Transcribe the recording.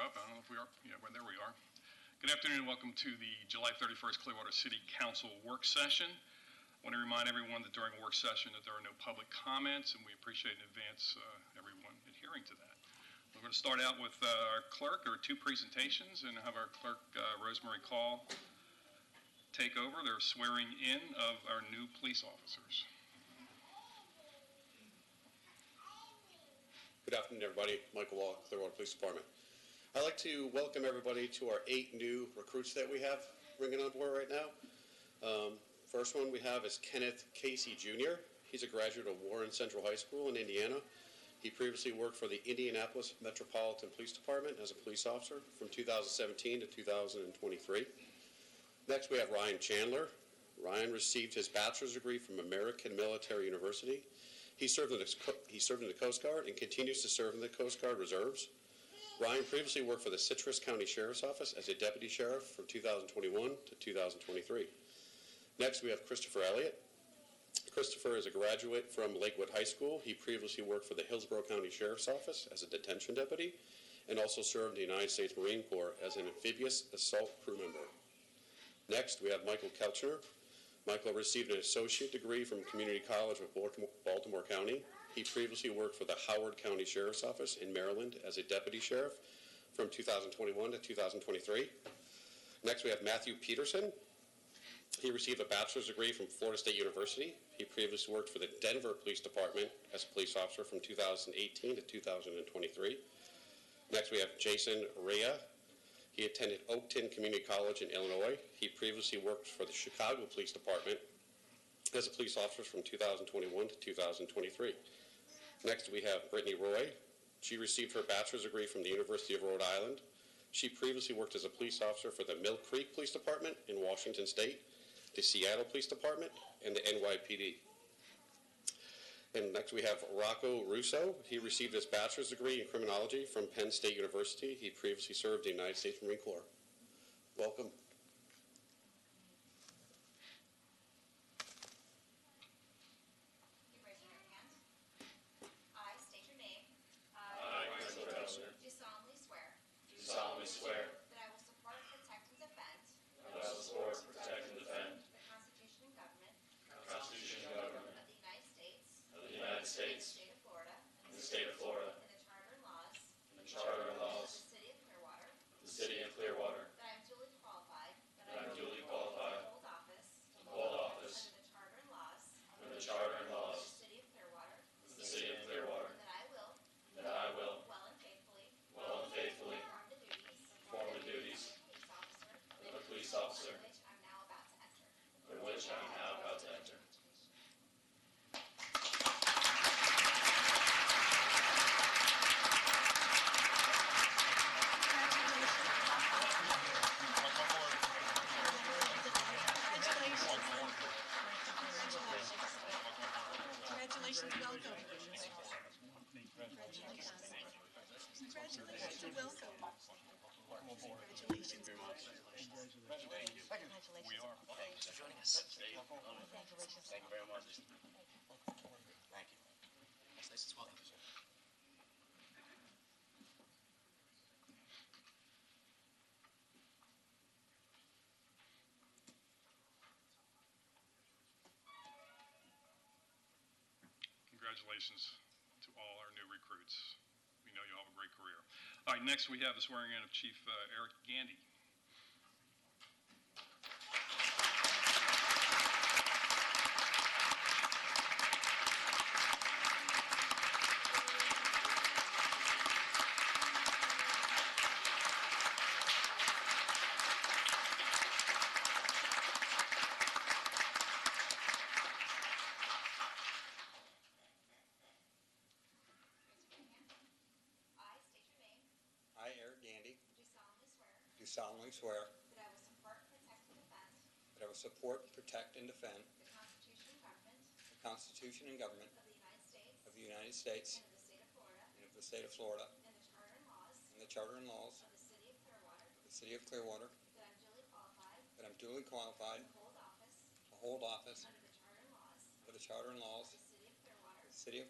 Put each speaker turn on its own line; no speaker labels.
are, yeah, well, there we are. Good afternoon and welcome to the July 31st Clearwater City Council Work Session. I want to remind everyone that during a work session that there are no public comments, and we appreciate in advance uh, everyone adhering to that. We're going to start out with uh, our clerk, There are two presentations, and have our clerk, uh, Rosemary Call, take over their swearing in of our new police officers.
Good afternoon, everybody. Michael Wall, Clearwater Police Department. I'd like to welcome everybody to our eight new recruits that we have bringing on board right now. Um, First one we have is Kenneth Casey Jr. He's a graduate of Warren Central High School in Indiana. He previously worked for the Indianapolis Metropolitan Police Department as a police officer from 2017 to 2023. Next, we have Ryan Chandler. Ryan received his bachelor's degree from American Military University he served in the, he served in the Coast Guard and continues to serve in the Coast Guard Reserves. Ryan previously worked for the Citrus County Sheriff's Office as a deputy sheriff from 2021 to 2023. Next, we have Christopher Elliott. Christopher is a graduate from Lakewood High School. He previously worked for the Hillsborough County Sheriff's Office as a detention deputy and also served in the United States Marine Corps as an amphibious assault crew member. Next, we have Michael Kelchner. Michael received an associate degree from Community College of Baltimore- Baltimore County. He previously worked for the Howard County Sheriff's Office in Maryland as a deputy sheriff from 2021 to 2023. Next, we have Matthew Peterson. He received a bachelor's degree from Florida State University. He previously worked for the Denver Police Department as a police officer from 2018 to 2023. Next, we have Jason Rea. He attended Oakton Community College in Illinois. He previously worked for the Chicago Police Department as a police officer from 2021 to 2023. Next, we have Brittany Roy. She received her bachelor's degree from the University of Rhode Island. She previously worked as a police officer for the Mill Creek Police Department in Washington State, the Seattle Police Department, and the NYPD. And next we have Rocco Russo. He received his bachelor's degree in criminology from Penn State University. He previously served the United States Marine Corps. Welcome.
You raise your right hand. I state your name. I, Do solemnly swear
Do solemnly swear
that I will support, protect, and defend
that I will support, protect, and defend
the Constitution and government
the Constitution and government
of the United States,
of the United
the
States
state of Florida,
and the state of Florida,
and the charter and laws
and the charter and
of the
laws
city of Clearwater,
of the city of Clearwater,
that I am duly qualified.
That I am duly qualified
To hold office.
to hold office
Under the charter and laws.
under the charter
Of
and
the
laws
city of Clearwater.
of the city of Clearwater,
And that I will.
and that I will,
Well and faithfully.
well and faithfully,
Perform the duties.
Perform the duties.
Police officer.
Of a police officer.
Which I'm now about to enter.
for which I am now about to enter.
Congratulations, welcome. Congratulations. Congratulations, and welcome. Congratulations. Congratulations. We are. Congratulations.
Thank you very much. Thank you. That's nice as well.
Congratulations to all our new recruits. We know you all have a great career. All right, next we have the swearing in of Chief uh, Eric Gandy.
Raise your right hand. I state your name.
I, Eric Gandy,
Do solemnly swear
do solemnly swear
that I will support, protect, and defend
that I will support, protect, and defend
the Constitution and government
the Constitution and government
of the United States.
of the United States
And of the state
and of the state
of Florida.
of Florida
And the charter
and the charter
and laws
and laws
of the city of Clearwater.
of the city of Clearwater,
That I am duly qualified
that I'm duly qualified
to hold
to hold office
office under the charter and laws
for the charter and
of
laws
the city of Clearwater.
of the city of